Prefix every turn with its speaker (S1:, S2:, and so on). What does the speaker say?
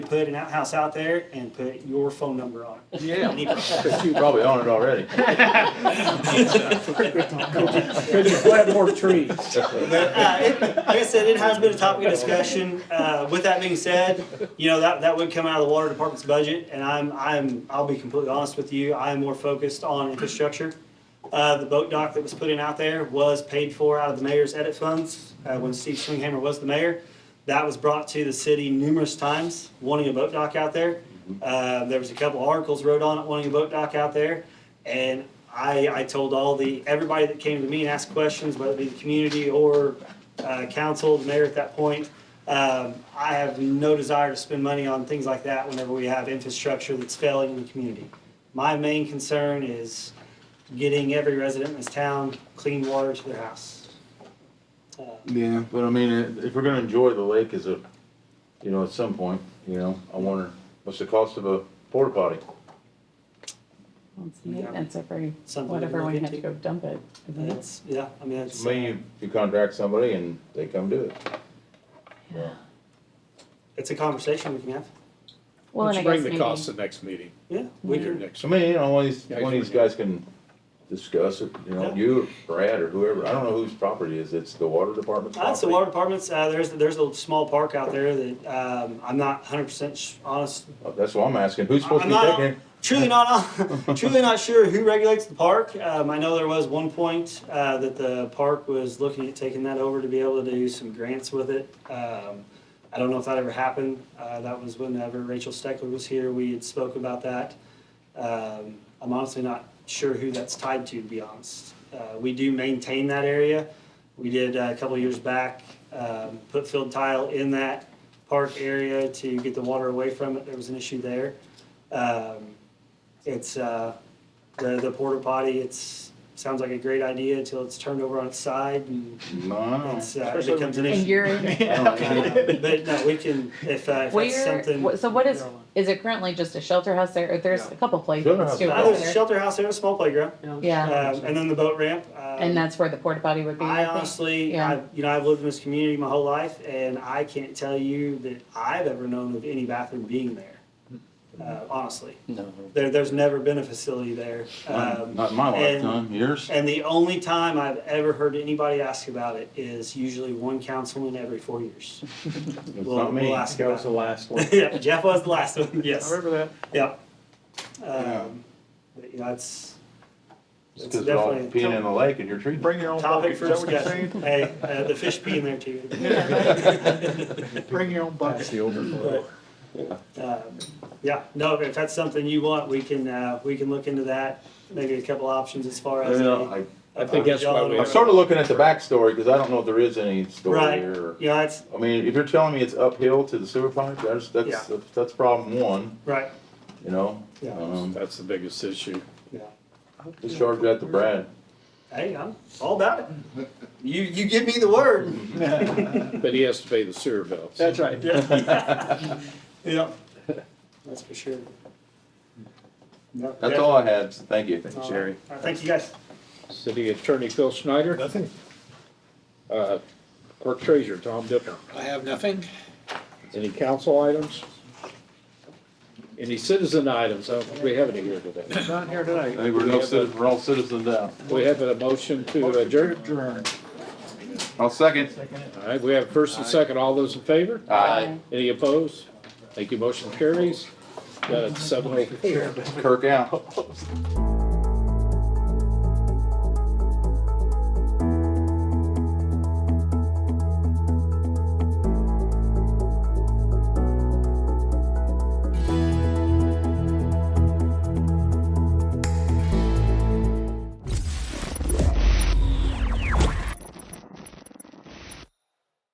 S1: put an outhouse out there and put your phone number on it.
S2: Yeah,
S1: Any problem.
S2: you probably own it already.
S3: Could you plant more trees?
S1: Uh, it- Like I said, it has been a topic of discussion. Uh, With that being said, you know, that, that would come out of the water department's budget, and I'm, I'm, I'll be completely honest with you, I am more focused on infrastructure. Uh, The boat dock that was put in out there was paid for out of the mayor's edit funds uh, when Steve Swinghammer was the mayor. That was brought to the city numerous times, wanting a boat dock out there. Uh, There was a couple articles wrote on it, wanting a boat dock out there. And I, I told all the, everybody that came to me and asked questions, whether it be the community or uh, council, the mayor at that point, um, I have no desire to spend money on things like that whenever we have infrastructure that's failing in the community. My main concern is getting every resident in this town clean water to their house. Uh,
S2: Yeah, but I mean, i- if we're gonna enjoy the lake as a, you know, at some point, you know, I wonder, what's the cost of a porta potty?
S4: It's maintenance every,
S1: Something we
S4: whatever,
S1: look
S4: when you have to
S1: into.
S4: go dump it. isn't it?
S1: It's, yeah, I mean, it's.
S2: I mean, you, you contract somebody and they come do it. Yeah.
S1: It's a conversation we can have.
S4: Well, and I
S3: Let's
S4: guess
S3: bring
S4: maybe-
S3: the cost to the next meeting.
S1: Yeah, we
S3: Your
S1: can.
S3: next-
S2: So I mean, you know, one of these,
S3: Guys,
S2: one of these
S3: we can-
S2: guys can discuss it, you know,
S1: Yeah.
S2: you, or Brad, or whoever, I don't know whose property it is, it's the water department's property.
S1: That's the water department's, uh, there's, there's a small park out there that, um, I'm not hundred percent honest.
S2: Uh, That's what I'm asking, who's supposed to
S1: I'm
S2: be
S1: not-
S2: taking it?
S1: Truly not, truly not sure who regulates the park. Um, I know there was one point, uh, that the park was looking at taking that over to be able to do some grants with it. Um, I don't know if that ever happened. Uh, that was whenever Rachel Steckler was here, we had spoke about that. Um, I'm honestly not sure who that's tied to, to be honest. Uh, we do maintain that area. We did uh, a couple years back, um, put field tile in that park area to get the water away from it. There was an issue there. Um, it's, uh, the, the porta potty, it's, sounds like a great idea until it's turned over on its side and
S2: No.
S1: it's, uh, it becomes an
S4: And
S1: issue.
S4: you're, in-
S1: Uh, But no, we can, if, uh, if that's
S4: where,
S1: something.
S4: wh- so what is, is it currently just a shelter house there? Or There's a couple places
S2: Shelter house.
S4: too.
S1: Uh,
S4: aren't
S1: there's a
S4: there?
S1: shelter house there, a small playground.
S4: Yeah,
S1: Um, and then the boat ramp. um,
S4: and that's where the porta potty would be,
S1: I
S4: I think.
S1: honestly,
S4: Yeah.
S1: I, you know, I've lived in this community my whole life, and I can't tell you that I've ever known of any bathroom being there. Uh, honestly,
S5: No.
S1: there, there's never been a facility there. Um,
S2: Not in my
S1: and-
S2: lifetime, yours?
S1: And the only time I've ever heard anybody ask about it is usually one councilman every four years.
S2: It's
S1: We'll,
S2: not me.
S1: we'll ask
S6: That was
S1: about
S6: the
S1: it.
S6: last one.
S1: Yeah, Jeff was the last one, yes,
S6: that.
S1: yep.
S2: Yeah.
S1: Um, but, you know, that's,
S2: It's
S1: it's
S2: because we're all
S1: definitely
S2: peeing in the lake and you're treating.
S6: Bring your own bucket,
S1: topic
S6: is
S1: for
S6: that what you're saying?
S1: discussion. Hey, uh, the fish pee in there too.
S6: Bring your own bucket. the overflow.
S1: Uh, Yeah, no, if that's something you want, we can, uh, we can look into that, maybe a couple options as far as. a-
S2: I,
S1: a
S7: I think that's why
S1: John
S7: we-
S1: or-
S2: I'm sort of looking at the backstory because I don't know if there is any story
S1: Right.
S2: here.
S1: Yeah, that's,
S2: I mean, if you're telling me it's uphill to the sewer pipe, that's, that's, that's problem one,
S1: right,
S2: you know?
S1: Yeah.
S2: Um,
S5: That's the biggest issue.
S1: yeah.
S2: Just charge that to Brad.
S1: Hey, I'm all about it. You, you give me the word.
S5: But he has to pay the sewer bill.
S6: That's right.
S1: Yeah. That's for sure. No,
S2: That's
S1: yeah.
S2: all I had. Thank you.
S1: All right. All right, Thank you, guys.
S5: City Attorney Phil Schneider. Nothing. Uh, Clerk Treasurer Tom Dipper.
S8: I have nothing.
S5: Any council items? Any citizen items? I don't think we have any here today.
S6: Not here
S2: I
S6: tonight.
S2: think we're no citizens, we're all citizens now.
S5: We have a motion to adjourn.
S6: Adjourn.
S2: I'll second.
S5: All right, we have first and second. All those in favor?
S2: Aye.
S5: Any opposed? Thank you. Motion carries. Got it, seven oh four.
S2: Kirk out.